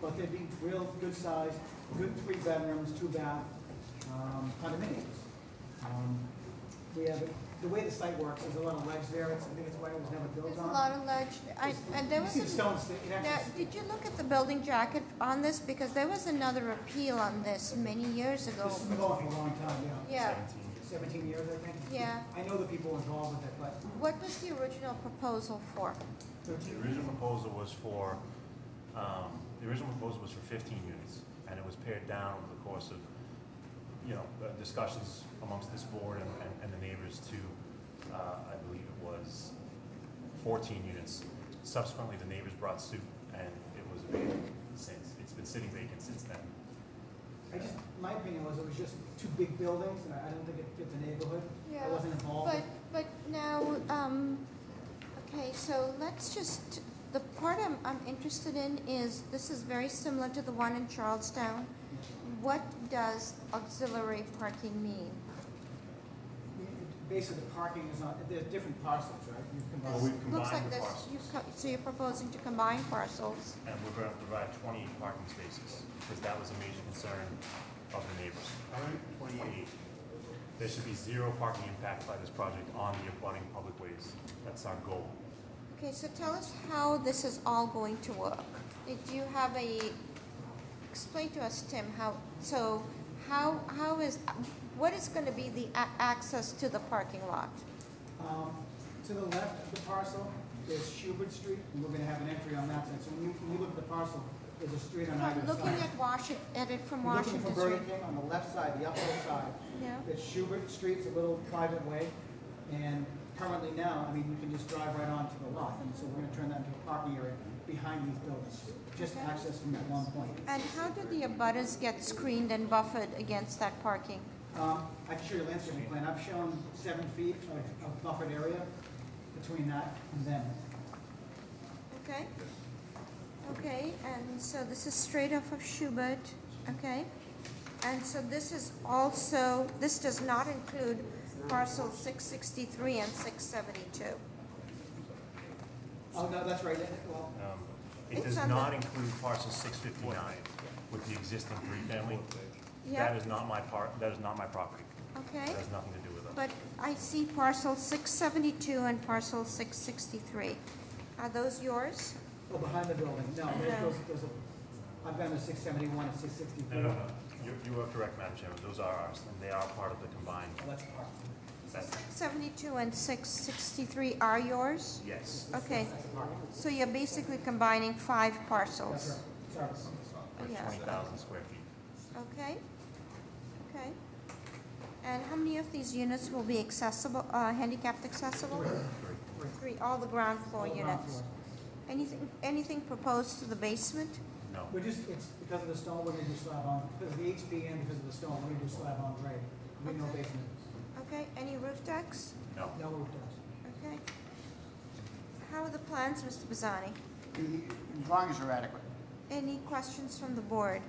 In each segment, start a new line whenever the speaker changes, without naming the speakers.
but they'd be real good size, good three bedrooms, two bath um, condominiums. Um, We have, the way the site works, there's a lot of ledge there, it's, I think it's why it was never built
There's a
on.
lot of ledge, I, and there
You
was
see the
a,
stones, it
now,
actually,
did you look at the building jacket on this? Because there was another appeal on this many years ago.
this has been going for a long time, yeah,
Yeah,
seventeen years, I think.
yeah.
I know the people involved with it, but
What was the original proposal for?
thirteen,
The original proposal was for, um, the original proposal was for fifteen units, and it was pared down over the course of, you know, uh, discussions amongst this board and, and- and the neighbors to, uh, I believe it was fourteen units. Subsequently, the neighbors brought suit, and it was vacant since, it's been sitting vacant since then.
I just, my opinion was it was just two big buildings, and I I don't think it fit the neighborhood. I
Yeah,
wasn't involved.
But, but now, um, okay, so let's just, the part I'm, I'm interested in is, this is very similar to the one in Charlestown. What does auxiliary parking mean?
Basically, the parking is on, there's different parcels, right? You've
Well,
combined.
we've
Looks
combined
like
the
this, you,
parcels,
co- so you're proposing to combine parcels?
and we're gonna provide twenty parking spaces, because that was a major concern of the neighbors.
All right,
Twenty-eight. There should be zero parking impact by this project on the abutting public ways. That's our goal.
Okay, so tell us how this is all going to work. Did you have a, explain to us, Tim, how, so, how, how is, what is gonna be the a- access to the parking lot?
Um, To the left of the parcel is Schubert Street, and we're gonna have an entry on that side. So when you, when you look at the parcel, there's a street on either
From
side.
looking at Washington, at it from
You're Looking
Washington
for
Street.
Burger King on the left side, the upper side,
Yeah,
it's Schubert Street's a little private way, and currently now, I mean, you can just drive right onto the lot, and so we're gonna turn that into a parking area behind these buildings, just access from that one point.
and how do the abutters get screened and buffered against that parking?
Um, I can show you a landscaping plan, I've shown seven feet of, of buffered area between that and them.
Okay? Okay, and so this is straight off of Schubert, okay? And so this is also, this does not include parcel six sixty-three and six seventy-two.
Oh, no, that's right, that- well,
Um, It
It's
does
on
not
the-
include parcel six fifty-nine with the existing three-family. That
Yeah,
is not my part, that is not my property.
okay,
That has nothing to do with it.
but I see parcel six seventy-two and parcel six sixty-three. Are those yours?
oh, behind the building, no, there's,
No.
those- those are- I've been to six seventy-one and six
No,
sixty-four.
no, no. You, you are correct, Madam Chairman. Those are ours, and they are part of the combined.
Oh, That's parking.
That's,
Seventy-two and six sixty-three are yours?
yes.
Okay,
That's parking.
so you're basically combining five
That's
parcels.
right, sorry.
With
Yeah.
twenty thousand square feet.
Okay, okay. And how many of these units will be accessible, uh, handicapped accessible? Three, all the ground floor
All ground
units.
floor.
Anything, anything proposed to the basement?
No.
We're just, it's because of the stone, we're gonna do slab on, because of the HB and because of the stone, we're gonna do slab on grade. We know
Okay.
basement,
Okay, any roof decks?
No.
no roof does.
Okay. How are the plans, Mr. Bazzani?
The drawings are adequate.
Any questions from the board?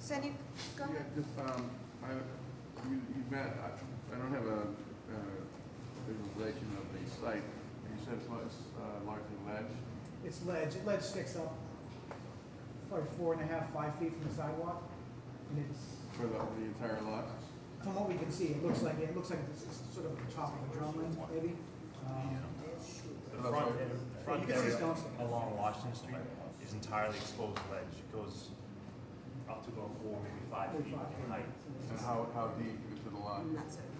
Does any, go
Yeah,
ahead.
just, um, I, you, you met, I, I don't have a, uh, visualization of the site. You said it's, uh, largely ledge.
It's ledge, ledge sticks up probably four and a half, five feet from the sidewalk. And it's,
for the, the entire lot?
from what we can see, it looks like, it looks like it's it's sort of the top of a drumline, maybe. Um,
The front, the front
You can see
area
stones.
along Washington Street is entirely exposed ledge. It goes up to about four, maybe five feet in height.
And how, how deep into the lot?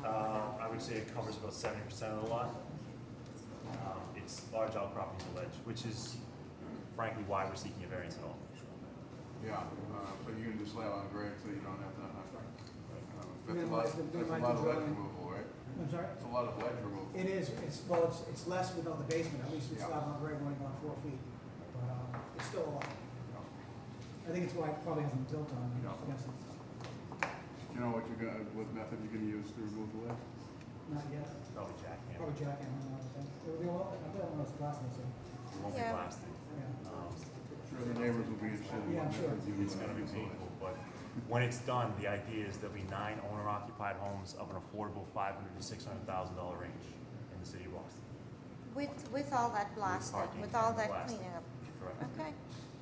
Uh, I would say it covers about seventy percent of the lot. Um, It's large outcropping of ledge, which is frankly why we're seeking a variance at all.
Yeah, uh, so you can just lay it on grade, so you don't have to, uh, that's a lot,
Minimize the-
that's
minimize the
a lot of ledge
drawing.
removal, right?
I'm sorry?
That's a lot of ledge removal.
It is, it's, well, it's, it's less without the basement, at least with
Yeah.
slab on grade, we're only going four feet. But, um, it's still a lot. I think it's why it probably hasn't built on,
Yeah.
I guess,
Do you know what you're gonna, what method you're gonna use to remove the ledge?
not yet.
Probably jackhammer.
Probably jackhammer, I would think. It would be a lot, I bet it was plastic, so,
It won't be
Yeah.
blasted.
yeah.
Um,
Sure, the neighbors will be interested in
Yeah,
what
sure.
method you
It's gonna be
remove the ledge.
painful, but when it's done, the idea is there'll be nine owner-occupied homes of an affordable five hundred to six hundred thousand dollar range in the city of Boston.
With, with all that blasting,
parking
with all
and
that
blasting.
cleaning up?
Correct?
Okay,